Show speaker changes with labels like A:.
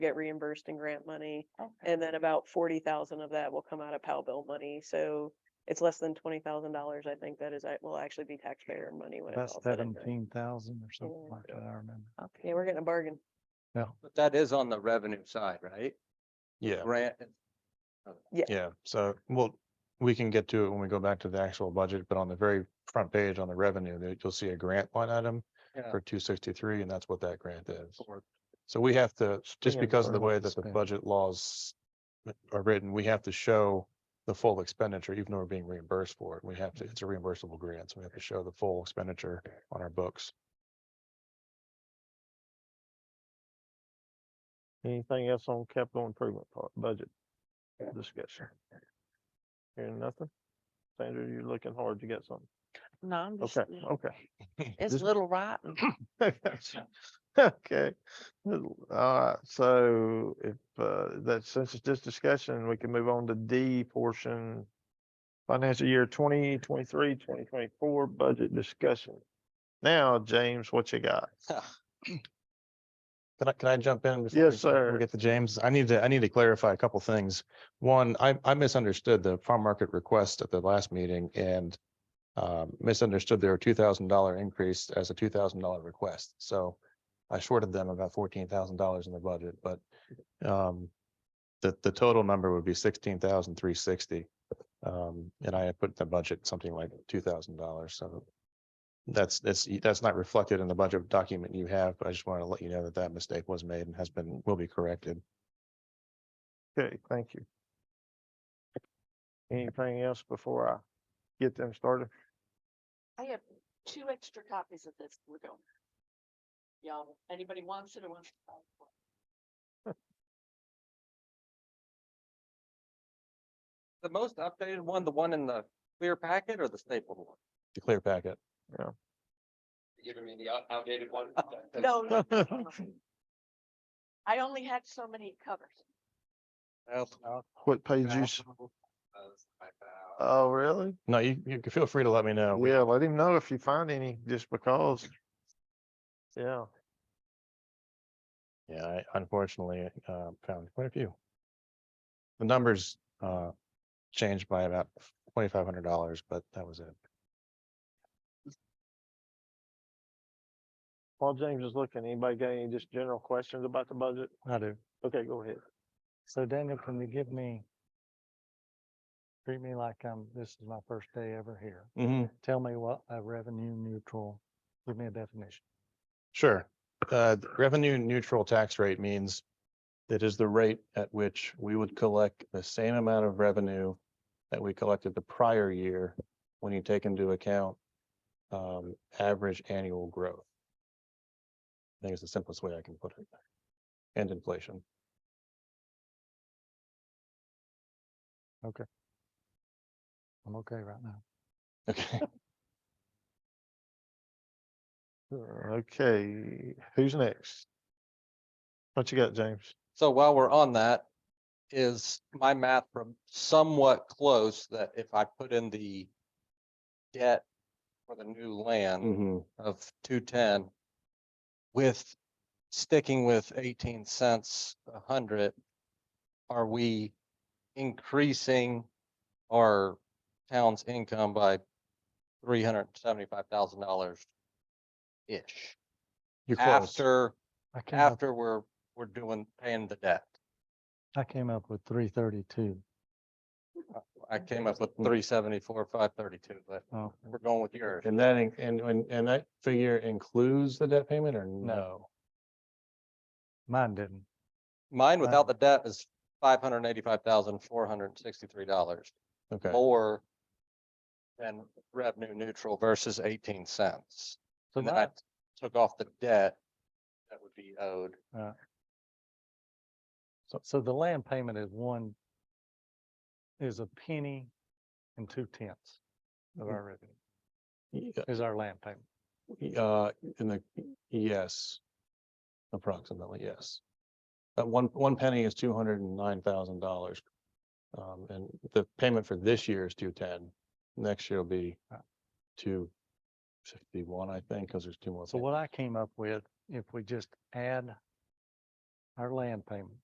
A: get reimbursed in grant money.
B: Okay.
A: And then about forty thousand of that will come out of PAL bill money, so it's less than twenty thousand dollars, I think that is, that will actually be taxpayer money when it's
C: That's
A: all said and done.
C: seventeen thousand or something
A: Yeah.
C: like that, I remember.
A: Yeah, we're getting a bargain.
D: But that is on the revenue side, right?
C: Yeah,
D: Grant,
C: yeah. So we'll we can get to it when we go back to the actual budget, but on the very front page on the revenue, there you'll see a grant line item
D: Yeah.
C: for two sixty-three, and that's what that grant is.
D: for-
C: So we have to, just
E: Spend
C: because of
E: or
C: the
E: what
C: way
E: to
C: that the
E: spend.
C: budget laws are written, we have to show the full expenditure, even though we're being reimbursed for it. We have to, it's a reimbursable grant, so we have to show the full expenditure on our books.
E: Anything else on capital improvement part, budget discussion? Hearing nothing? Sandra, you're looking hard. You got something?
B: No, I'm just,
E: Okay, okay.
B: it's
E: This-
B: little rotten.
E: Okay, all right, so if uh, that since it's just discussion, we can move on to D portion. Financial year 2023-2024 budget discussion. Now, James, what you got?
C: Can I, can I jump in? before
E: Yes,
C: we- before
E: sir.
C: We get to James. I need to, I need to clarify a couple things. One, I, I misunderstood the farm market request at the last meeting and um, misunderstood their two thousand dollar increase as a two thousand dollar request. So I shorted them about fourteen thousand dollars in the budget, but um, the, the total number would be sixteen thousand three sixty. Um, and I had put in the budget something like two thousand dollars, so that's, that's, that's not reflected in the budget document you have, but I just wanted to let you know that that mistake was made and has been, will be corrected.
E: Okay, thank you. Anything else before I get them started?
F: I have two extra copies of this. We're going. Y'all, anybody wants it or wants? to buy it?
D: The most updated one, the one in the clear packet or the stapled one?
C: The clear packet.
G: Giving me the out- outdated one.
F: No, no, no, no, no. I only had so many covers.
E: What page you, s-
G: Uh,
E: oh, really?
C: No, you, you can feel free to let me know. We-
E: Yeah, let him know if you find any, just because. Yeah.
C: Yeah, I unfortunately, uh, found quite a few. The numbers, uh, changed by about twenty-five hundred dollars, but that was it.
E: While James is looking, anybody got any just general questions about the budget?
C: I do.
E: Okay, go ahead.
H: So Daniel, can you give me? Treat me like I'm, this is my first day ever here.
C: hmm
H: Tell me what a revenue neutral, give me a definition.
C: Sure. Uh, th- revenue neutral tax rate means it is the rate at which we would collect the same amount of revenue that we collected the prior year when you take into account um, average annual growth. I think it's the simplest way I can put it. And inflation.
H: I'm okay right now.
C: Okay.
E: Uh, Okay, who's next? What you got, James?
D: So while we're on that, is my math from somewhat close that if I put in the debt for the new land
C: Mhm.
D: of two ten with sticking with eighteen cents a hundred, are we increasing our town's income by three hundred seventy-five thousand dollars ish?
C: You're close.
D: After,
H: I came up,
D: after we're, we're doing, paying the debt.
H: I came up with three thirty-two.
D: I came up with three seventy-four, five thirty-two, but
H: Oh,
D: we're going with yours.
C: And that, in- and, and, and that figure includes the debt payment or no?
H: mine didn't.
D: Mine without the debt is five hundred and eighty-five thousand, four hundred and sixty-three dollars
C: Okay.
D: more than revenue neutral versus eighteen cents.
H: So
D: And then I
H: mine,
D: took off the debt that would be owed.
H: so the land payment is one, is a penny and two tenths of our revenue,
C: Y-
H: is our land payment.
C: Y- Uh, in the, yes. Approximately, yes. But one, one penny is two hundred and nine thousand dollars. Um, and the payment for this year is two ten. Next year will be uh, two fifty-one, I think, because there's two more.
H: So what I came up with, if we just add
C: our land payment.